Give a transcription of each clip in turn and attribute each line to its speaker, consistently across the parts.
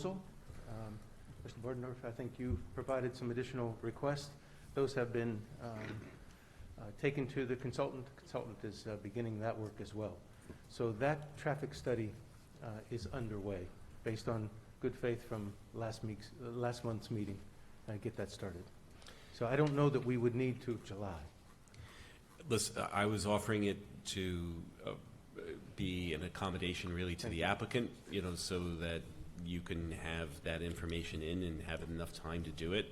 Speaker 1: proposal. Um, Mr. Bordendorf, I think you've provided some additional requests. Those have been um, uh, taken to the consultant. The Consultant is uh, beginning that work as well. So that traffic study uh, is underway, based on good faith from last week's, uh, last month's meeting, uh, get that started. So I don't know that we would need to July.
Speaker 2: Listen, I was offering it to uh, be an accommodation really to
Speaker 1: Thank
Speaker 2: the
Speaker 1: you.
Speaker 2: applicant, you know, so that you can have that information in and have enough time to do it.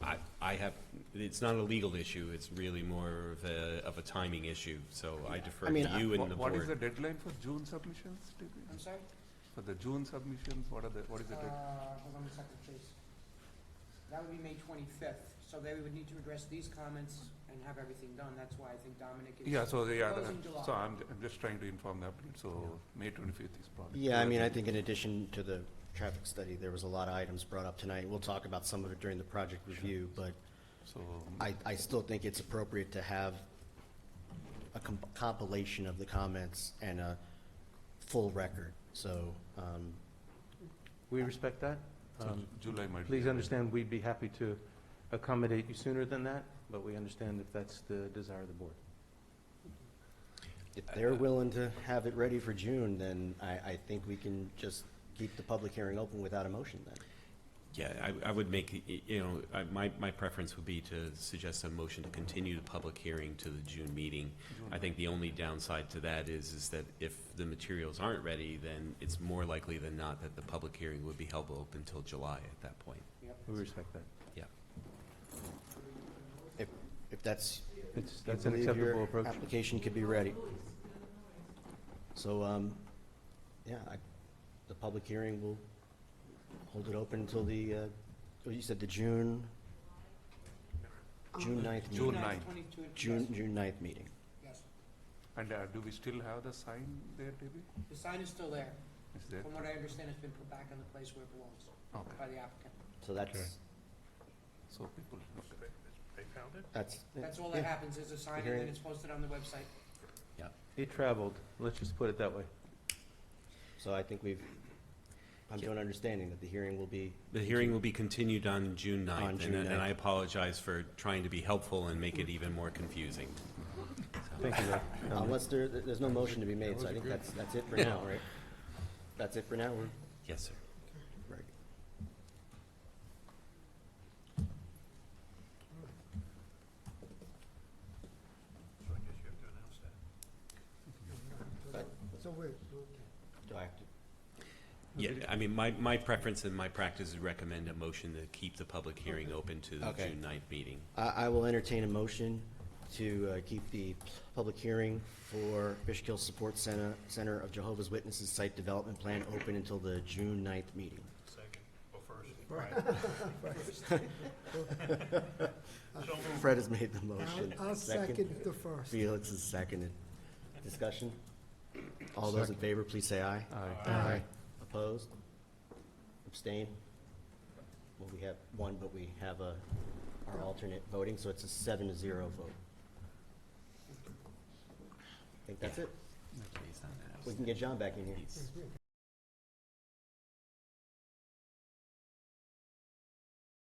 Speaker 2: I, I have, it's not a legal issue, it's really more of a, of a timing issue, so I defer
Speaker 3: I
Speaker 2: to
Speaker 3: mean, I-
Speaker 2: you and the
Speaker 4: What is the
Speaker 2: board.
Speaker 4: deadline for June submissions, typically?
Speaker 3: I'm sorry?
Speaker 4: For the June submissions, what are the, what is the
Speaker 3: Uh,
Speaker 4: deadline?
Speaker 3: hold on a second, please. That would be May twenty-fifth, so they would need to address these comments and have everything done, that's why I think Dominic is.
Speaker 4: Yeah, so they are,
Speaker 3: Close in July.
Speaker 4: so I'm, I'm just trying to inform the applicant, so May twenty-fifth is probably.
Speaker 5: Yeah, I mean, I think in addition to the traffic study, there was a lot of items brought up tonight. We'll talk about some of it during the project review, but
Speaker 4: So, uh,
Speaker 5: I, I still think it's appropriate to have a com- compilation of the comments and a full record. So, um,
Speaker 1: We respect that.
Speaker 4: so
Speaker 1: Um,
Speaker 4: July might. be
Speaker 1: Please
Speaker 4: a-
Speaker 1: understand, we'd be happy to accommodate you sooner than that, but we understand if that's the desire of the board.
Speaker 5: if they're willing to have it ready for June, then I, I think we can just keep the public hearing open without a motion then.
Speaker 2: Yeah, I, I would make, y- you know, I, my, my preference would be to suggest a motion to continue the public hearing to the June meeting.
Speaker 4: June.
Speaker 2: I think the only downside to that is, is that if the materials aren't ready, then it's more likely than not that the public hearing would be held open until July at that point.
Speaker 3: Yep.
Speaker 1: We respect that.
Speaker 5: If, if that's
Speaker 1: It's,
Speaker 5: You
Speaker 1: that's an
Speaker 5: believe your
Speaker 1: acceptable approach.
Speaker 5: Application could be ready. So, um, yeah, I, the public hearing will hold it open until the, uh, oh, you said the June, June ninth,
Speaker 4: June
Speaker 5: meeting.
Speaker 4: 9th.
Speaker 3: Twenty-two,
Speaker 5: June,
Speaker 3: yes,
Speaker 5: June ninth meeting.
Speaker 3: yes.
Speaker 4: And uh, do we still have the sign there, Debbie?
Speaker 3: The sign is still there,
Speaker 4: Is there?
Speaker 3: from what I understand, it's been put back in the place where it belongs
Speaker 4: Okay,
Speaker 3: by the applicant.
Speaker 5: So that's,
Speaker 4: so people, okay.
Speaker 5: that's.
Speaker 3: That's all that happens, is a sign and then
Speaker 5: Hearing.
Speaker 3: it's posted on the website.
Speaker 1: It traveled, let's just put it that way.
Speaker 5: So I think we've, I'm to an understanding that the hearing will be,
Speaker 2: The hearing will be continued on June
Speaker 5: On
Speaker 2: 9th,
Speaker 5: June
Speaker 2: and and I
Speaker 5: 9th.
Speaker 2: apologize for trying to be helpful and make it even more confusing.
Speaker 1: Thank you, Rob.
Speaker 5: Uh, unless there, there's no motion to be made, so I think that's, that's it for now, right? That's it for now, we're,
Speaker 2: Yes, sir.
Speaker 5: Right. But- Do I have to,
Speaker 2: Yeah, I mean, my, my preference and my practice is recommend a motion to keep the public hearing open to the
Speaker 5: Okay.
Speaker 2: June 9th meeting.
Speaker 5: I, I will entertain a motion to uh, keep the public hearing for Fishkill Support Center, Center of Jehovah's Witnesses Site Development Plan open until the June 9th meeting. Fred has made the motion.
Speaker 6: I'll I'll second the first.
Speaker 5: Felix is seconded. Discussion? All those in favor, please say aye.
Speaker 1: Aye.
Speaker 6: Aye.
Speaker 5: Opposed? Abstain? Well, we have one, but we have a, our alternate voting, so it's a seven to zero vote. I think that's it. We can get John back in here.
Speaker 2: He's-